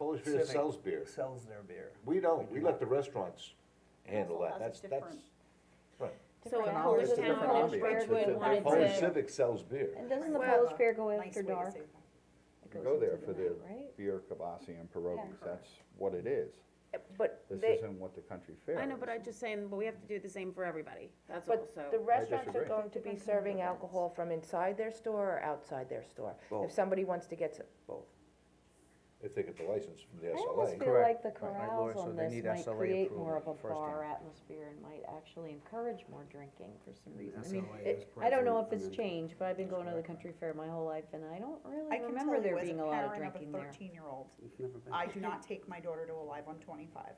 Atmosphere Civic sells beer. Sells their beer. We don't, we let the restaurants handle Council that, has that's, a that's, right. So in Different Polish hours, It's a different Town, if ambiance. ambiance. It's Ridgewood a- wanted Polish to, Civic sells beer. And doesn't the Well, Polish Fair go nice after way to dark? say that. It You goes go there into for night, the Right? beer kibasi and pierogies, correct. that's what it is. but This they, isn't what the country fair is. I know, but I'm just saying, but we have to do the same for everybody, that's all, but so. the restaurants are disagree. going to be serving alcohol from inside their store or outside their store. If Both. somebody wants to get some, both. If they get the license from the I almost SLA. feel like the Right, right, Laura, corrals so on they this need might SLA create approval more of a first hand. bar atmosphere and might actually encourage more drinking for Mm, some reason. I mean, SLA it- is I don't know if probably- it's changed, but I've been going to the country fair my whole life and I don't I really can tell remember you there as a being a lot of parent of drinking a there. thirteen-year-old, I do not take my daughter to a live on twenty-five.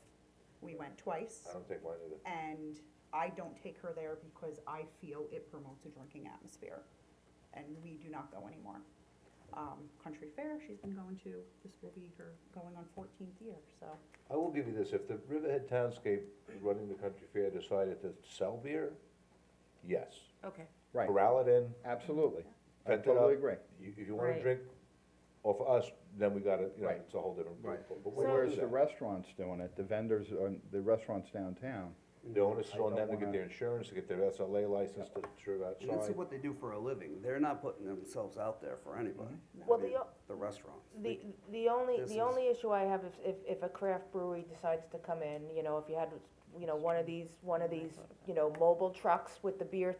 We went twice I don't think mine either. and I don't take her there because I feel it promotes a drinking atmosphere. And we do not go anymore. Um, country fair, she's been going to, this will be her going on fourteenth year, so. I will give you this, if the Riverhead Townscape running the country fair decided to sell beer, yes. Okay, Right, Corral it in, absolutely. I Tent it up. totally agree. you, if you wanna Right. drink off us, then we gotta, you know, Right. it's a whole different. Right. but- but we don't Whereas do the that. restaurants doing it, the vendors, on- the restaurants downtown, The onus is I on don't them to get wanna- their insurance, to get their SLA license to serve And that's outside. what they do for a living, they're not putting themselves out there for anybody. I Mm-hmm. Well, mean, the o- The restaurants. The, the only, This the only issue I have if, if, if a craft brewery decides to come in, you know, if you had, you know, one of these, one of these, you know, mobile trucks with the beer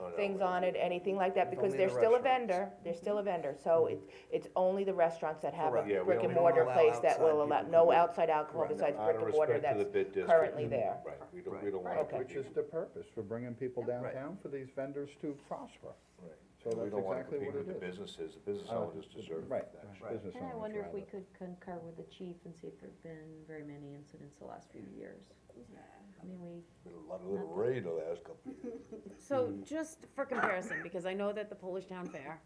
Oh, no, things we- on it, anything like that, It's because only they're the still a restaurants. vendor, they're still a vendor, so it, it's only the restaurants that have a Correct. Yeah, we brick don't and allow mortar place that outside will people allow, to no come in. outside alcohol Correct. besides Out brick of and mortar respect to that's the bid district. Mm-hmm. currently there. Right, we don't, we Right. don't wanna. Okay. which is the purpose, for bringing people downtown, for these vendors to prosper. Right. So We that's don't wanna exactly compete what with it the is. businesses, the business Uh, owners deserve Right, that. Right. business And I owners wonder if we rather. could concur with the chief and see if there've been very many incidents the last few years. I mean, we Been a lot of little raid the last couple of years. so Mm. just for comparison, because I know that the Polish Town Fair,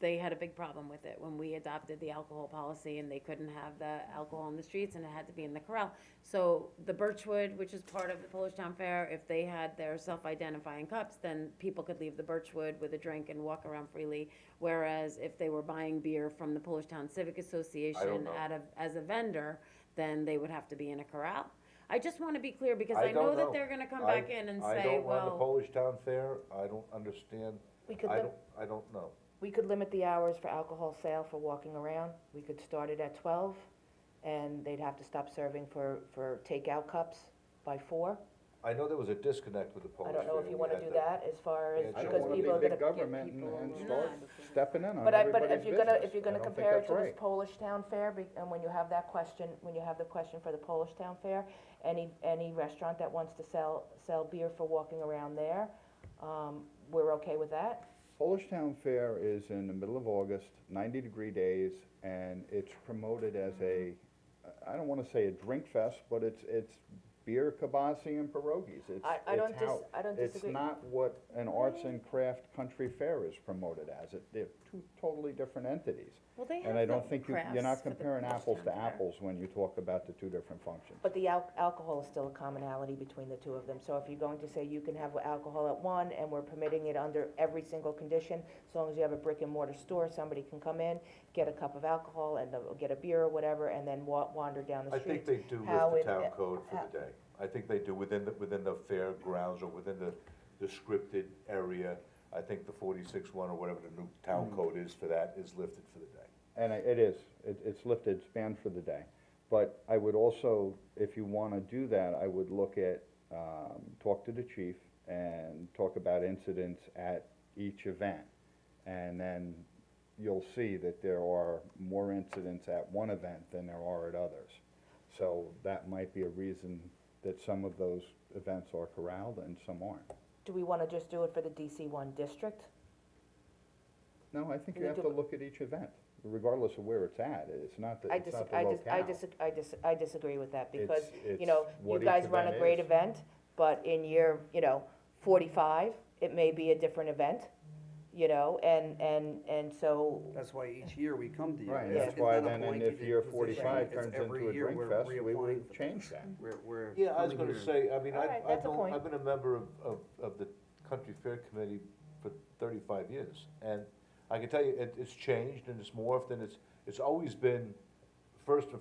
they had a big problem with it when we adopted the alcohol policy and they couldn't have the alcohol in the streets and it had to be in the corral. So the Birchwood, which is part of the Polish Town Fair, if they had their self-identifying cups, then people could leave the Birchwood with a drink and walk around freely. Whereas if they were buying beer from the Polish Town Civic Association know. out of, as a vendor, then they would have to be in a corral. I just wanna be clear because I I know don't that know. they're gonna come I- back in and I say, don't run the well, Polish Town Fair, I don't understand, We could I lim- don't, I don't know. we could limit the hours for alcohol sale for walking around, we could start it at twelve, and they'd have to stop serving for, for takeout cups by four. I know there was a disconnect with the I Polish Fair. don't know if when you we wanna had do that as far as, I I don't don't because wanna wanna be be people are gonna big give people. government and, and a- start stepping in on But I, but everybody's if you're gonna, business. if you're I gonna don't think compare it that's to this right. Polish Town Fair, be- and when you have that question, when you have the question for the Polish Town Fair, any, any restaurant that wants to sell, sell beer for walking around there, um, we're okay with that? Polish Town Fair is in the middle of August, ninety degree days, and it's promoted as a, I don't wanna say a drink fest, but it's, it's beer kibasi and pierogies, it's, I- I don't it's how. dis- I don't disagree. It's not what an arts and craft country fair is promoted as, it, they're two totally different entities. well, they have And I no don't think you, crafts you're not for the comparing Polish apples Town to Fair. apples when you talk about the two different functions. But the al- alcohol is still a commonality between the two of them, so if you're going to say you can have alcohol at one, and we're permitting it under every single condition, as long as you have a brick and mortar store, somebody can come in, get a cup of alcohol, and uh, get a beer or whatever, and then wa- wander down the I street. think they do how with it- uh, the town code how- for the day. I think they do within the, within the fair grounds or within the, the scripted area. I think the forty-six one or whatever the new town code is for that is lifted for the day. And I- it is, it, it's lifted, it's banned for the day. But I would also, if you wanna do that, I would look at, um, talk to the chief and talk about incidents at each event. And then you'll see that there are more incidents at one event than there are at others. So that might be a reason that some of those events are corralled and some aren't. Do we wanna just do it for the DC one district? No, I think you We have do- to look at each event, regardless of where it's at. It's not the, I it's dis, not the I locale. dis, I dis, I dis, I disagree with that, because, it's you know, you what each guys run a event great is. event, but in year, you know, forty-five, it may be a different event, you know, and, and, and so, That's why each year we come to you. Right, It's- that's it's why not a then, and if blanketed year position. forty-five It's turns into every a year drink we're fest, we reapplying would for change this. that. We're, we're. Yeah, I was coming gonna here. say, I mean, All I, right, I that's a don't, point. I've been a member of, of, of the Country Fair Committee for thirty-five years. And I can tell you, it, it's changed and it's morphed and it's, it's always been, first and